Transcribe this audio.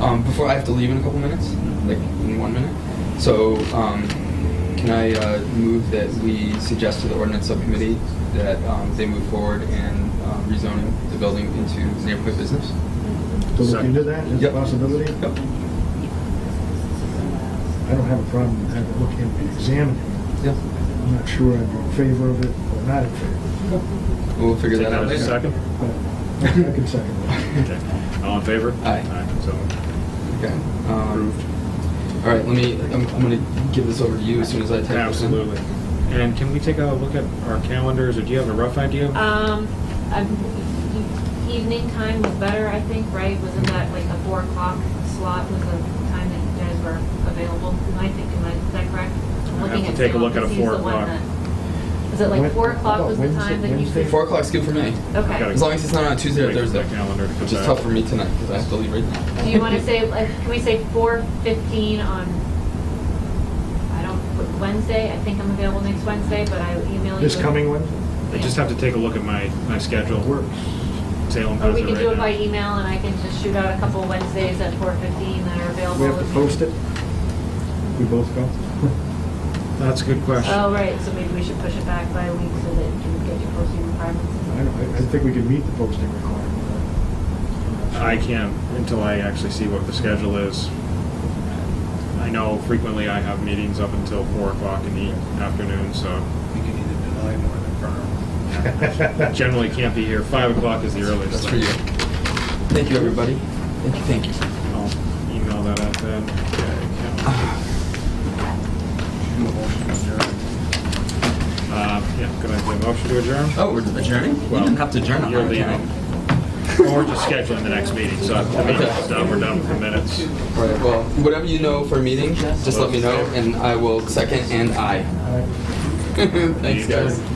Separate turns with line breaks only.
Um, before I have to leave in a couple minutes, like in one minute. So, um, can I uh, move that we suggest to the ordinance subcommittee that um, they move forward and uh, rezoning the building into neighborhood business?
So we can do that, is a
Yep.
possibility?
Yep.
I don't have a problem with having it look and examine it.
Yeah.
I'm not sure I'm in favor of it or not in favor,
We'll figure
Take
that
that
out
as a
later.
second?
but I can second that.
Okay. All in favor?
Aye.
So
Okay. Um,
approved.
all right. Let me. I'm, I'm going to give this over to you as soon as I type this in.
Absolutely. And can we take a look at our calendars, or do you have a rough idea?
Um, I'm- evening time was better, I think, right? Wasn't that like a four o'clock slot was the time that you guys were available? Am I thinking, like, is that correct? I'm
I'll have
looking
to take a
Sam,
look at a
because he's the
4
one
o'clock.
that- Was it like
When-
four o'clock
about
was the time
Wednesday-
that you?
Wednesday?
Four o'clock's good for me.
I've
Okay.
gotta
As long as it's not on a Tuesday or
Wait for
Thursday.
that calendar to come
Which is
back.
tough for me tonight because I have to leave right now.
Do you want to say, like, can we say four fifteen on, I don't, Wednesday? I think I'm available next Wednesday, but I will email you.
This coming Wednesday?
I just have to take a look at my, my schedule.
Works.
Salem
Or
has
Oh, we
it
can do it by
right now.
email and I can just shoot out a couple Wednesdays at four fifteen that are available.
We have to post it? We both go?
That's a good question.
Oh, right, so maybe we should push it back by a week so that you can get your posting
I
requirements.
don't, I- I think we can meet the posting requirement.
I can't until I actually see what the schedule is. I know frequently I have meetings up until four o'clock in the afternoon, so
You can either deny nor affirm.
generally can't be here. Five o'clock is the earliest.
That's for you. Thank you, everybody. Thank you. Thank you.
I'll email that out then.
Ah.
Uh, yeah, gonna do a motion to adjourn?
Oh, we're adjourning? We
Well,
didn't have to adjourn. on
You're
that,
leaving.
can
Or we're just scheduling the next meeting, so the meeting's done, we're done with the minutes.
I? All right, well, whatever you know for a meeting, just let me know and I will second and I. Thanks, guys.